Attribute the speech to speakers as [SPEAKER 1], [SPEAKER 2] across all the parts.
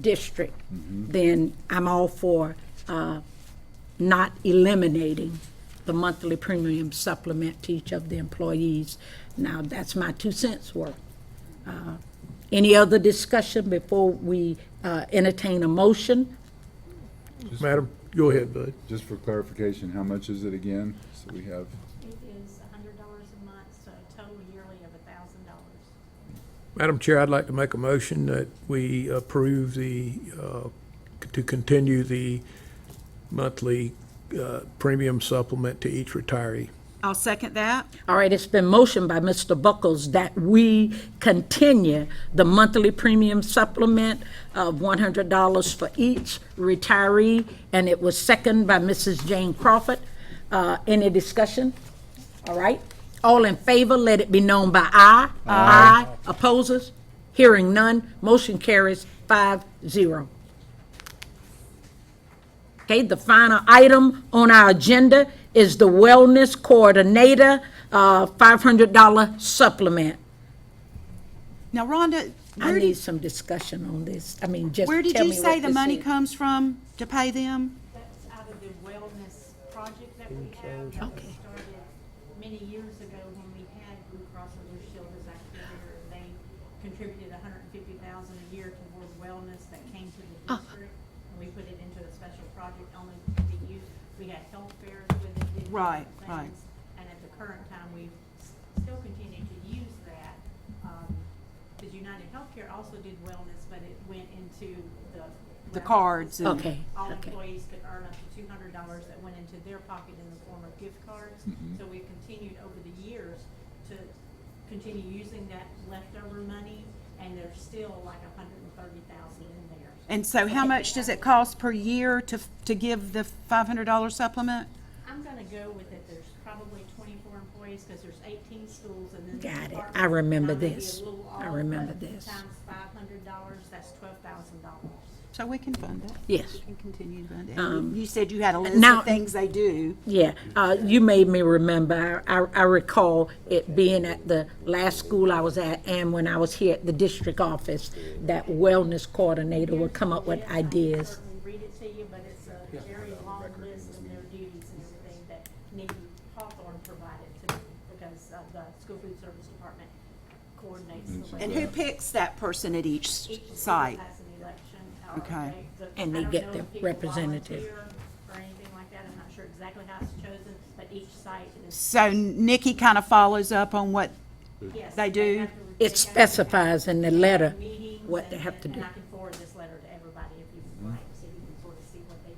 [SPEAKER 1] district, then I'm all for uh, not eliminating the monthly premium supplement to each of the employees. Now, that's my two cents worth. Uh, Any other discussion before we uh, entertain a motion?
[SPEAKER 2] Madam, go ahead, Bud.
[SPEAKER 3] Just for clarification, how much is it again? So we have,
[SPEAKER 4] It is a hundred dollars a month, so a total yearly of a thousand dollars.
[SPEAKER 2] Madam Chair, I'd like to make a motion that we approve the, uh, to continue the monthly uh, premium supplement to each retiree.
[SPEAKER 5] I'll second that.
[SPEAKER 1] All right, it's been motioned by Mr. Buckles that we continue the monthly premium supplement of $100 for each retiree, and it was seconded by Mrs. Jane Crawford. Uh, Any discussion? All right, all in favor, let it be known by aye. Aye. Opposes? Hearing none, motion carries five zero. Okay, the final item on our agenda is the Wellness Coordinator, uh, $500 supplement.
[SPEAKER 5] Now, Rhonda,
[SPEAKER 1] I
[SPEAKER 5] where,
[SPEAKER 1] need
[SPEAKER 5] did-
[SPEAKER 1] some discussion on this. I mean, just tell
[SPEAKER 5] where
[SPEAKER 1] me
[SPEAKER 5] did you say
[SPEAKER 1] what
[SPEAKER 5] the
[SPEAKER 1] this
[SPEAKER 5] money
[SPEAKER 1] is.
[SPEAKER 5] comes from to pay them?
[SPEAKER 4] That's out of the wellness project that we have, that was started many years ago when we had Blue Cross and Blue Shield as our carrier. and They contributed a hundred and fifty thousand a year toward wellness that came to the
[SPEAKER 5] Oh.
[SPEAKER 4] district. And we put it into a special project only to be used. We had health fairs with it. did different
[SPEAKER 5] Right, right.
[SPEAKER 4] things. And at the current time, we s- still continue to use that. Because United Healthcare also did wellness, but it went into the.
[SPEAKER 5] The
[SPEAKER 4] wellness
[SPEAKER 5] cards and?
[SPEAKER 1] Okay,
[SPEAKER 4] all
[SPEAKER 1] okay.
[SPEAKER 4] employees could earn up to two hundred dollars that went into their pocket in the form of gift cards.
[SPEAKER 1] Mm-hmm.
[SPEAKER 4] So we've continued over the years to continue using that leftover money, and there's still like a hundred and thirty thousand in there.
[SPEAKER 5] And so how much does it cost per year to, to give the $500 supplement?
[SPEAKER 4] I'm gonna go with it, there's probably twenty-four employees, because there's eighteen schools and then. the
[SPEAKER 1] Got it. I
[SPEAKER 4] department.
[SPEAKER 1] remember
[SPEAKER 4] Now, maybe a
[SPEAKER 1] this.
[SPEAKER 4] little
[SPEAKER 1] I
[SPEAKER 4] off,
[SPEAKER 1] remember
[SPEAKER 4] but
[SPEAKER 1] this.
[SPEAKER 4] Times five hundred dollars, that's twelve thousand dollars.
[SPEAKER 5] So we can fund it.
[SPEAKER 1] Yes. Um,
[SPEAKER 5] We can continue to fund it. And You you said you had a list
[SPEAKER 1] now-
[SPEAKER 5] of things they do.
[SPEAKER 1] Yeah, uh, you made me remember. I, I- I recall it being at the last school I was at and when I was here at the district office, that wellness coordinator would come up with ideas.
[SPEAKER 4] Certainly read it to you, but it's a very long list of their duties and everything that Nikki Hawthorne provided to me because uh, the school food service department coordinates the way.
[SPEAKER 5] And who picks that person at each
[SPEAKER 4] Each
[SPEAKER 5] s-
[SPEAKER 4] school
[SPEAKER 5] site?
[SPEAKER 4] Has an election. or
[SPEAKER 5] Okay.
[SPEAKER 4] they- the-
[SPEAKER 1] And they
[SPEAKER 4] I don't
[SPEAKER 1] get
[SPEAKER 4] know
[SPEAKER 1] their
[SPEAKER 4] if people
[SPEAKER 1] representative.
[SPEAKER 4] volunteer Or anything like that. I'm not sure exactly how it's chosen, but each site is.
[SPEAKER 5] So Nikki kind of follows up on what,
[SPEAKER 4] yes,
[SPEAKER 5] They
[SPEAKER 4] have to-
[SPEAKER 5] do?
[SPEAKER 4] they have
[SPEAKER 1] It
[SPEAKER 4] to
[SPEAKER 1] specifies in the letter
[SPEAKER 4] have meetings
[SPEAKER 1] what they
[SPEAKER 4] and-
[SPEAKER 1] have to do.
[SPEAKER 4] And I can forward this letter to everybody if you would like, so you can sort of see what they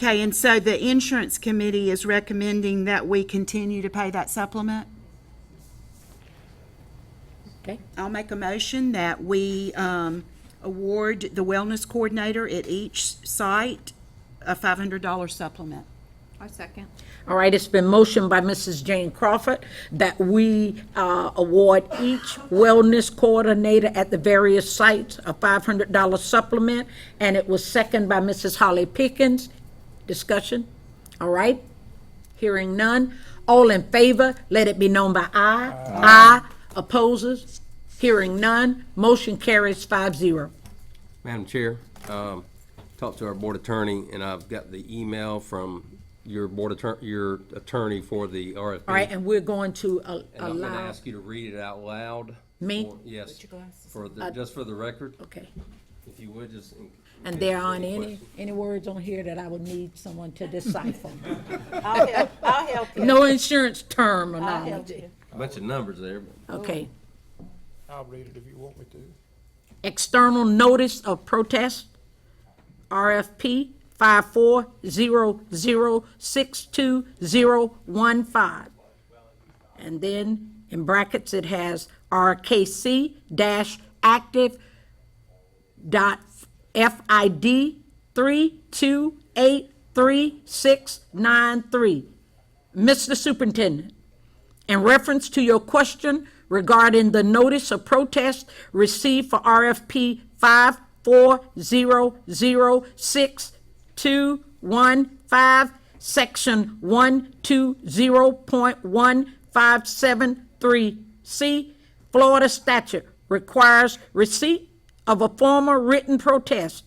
[SPEAKER 4] do.
[SPEAKER 5] okay, and so the insurance committee is recommending that we continue to pay that supplement?
[SPEAKER 1] Okay,
[SPEAKER 5] I'll make a motion that we um, award the wellness coordinator at each site a $500 supplement.
[SPEAKER 6] I second.
[SPEAKER 1] all right, it's been motioned by Mrs. Jane Crawford that we uh, award each wellness coordinator at the various sites a $500 supplement, and it was seconded by Mrs. Holly Pickens. Discussion? All right, hearing none. All in favor, let it be known by aye. Aye. Opposes? Hearing none. Motion carries five zero.
[SPEAKER 7] Madam Chair, um, talked to our board attorney, and I've got the email from your board attorney, your attorney for the RFP.
[SPEAKER 1] All right, and we're going to uh,
[SPEAKER 7] And I'm gonna
[SPEAKER 1] allow,
[SPEAKER 7] ask you to read it out loud.
[SPEAKER 1] Me? Uh,
[SPEAKER 7] for- Yes, for the, just for the record,
[SPEAKER 1] okay.
[SPEAKER 7] if you would, just. in-
[SPEAKER 1] And there aren't any,
[SPEAKER 7] questions.
[SPEAKER 1] any words on here that I would need someone to decipher.
[SPEAKER 5] I'll help, I'll help you.
[SPEAKER 1] No insurance terminology.
[SPEAKER 7] Bunch of numbers there, but.
[SPEAKER 1] Okay.
[SPEAKER 2] I'll read it if you want me to.
[SPEAKER 1] External notice of protest, RFP five four zero zero six two zero one five. And then in brackets, it has RKC dash active dot FID three two eight three six nine three. Mr. Superintendent, in reference to your question regarding the notice of protest received for RFP five four zero zero six two one five, section one two zero point one five seven three C, Florida statute requires receipt of a formal written protest